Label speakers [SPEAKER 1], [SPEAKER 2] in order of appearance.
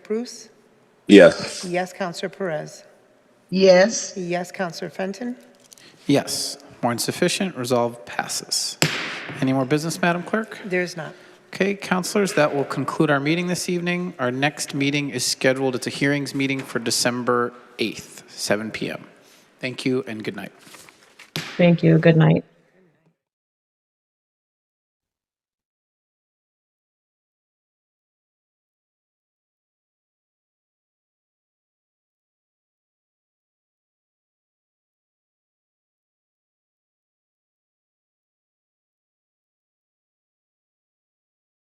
[SPEAKER 1] Cruz?
[SPEAKER 2] Yes.
[SPEAKER 1] Yes, Counselor Perez?
[SPEAKER 3] yes,
[SPEAKER 1] Yes, Counselor Fenton?
[SPEAKER 4] Yes. More insufficient, resolve passes. Any more business, Madam Clerk?
[SPEAKER 1] There is not.
[SPEAKER 4] Okay, counselors, that will conclude our meeting this evening. Our next meeting is scheduled, it's a hearings meeting for December 8th, 7 PM. Thank you and good night.
[SPEAKER 5] Thank you. Good night.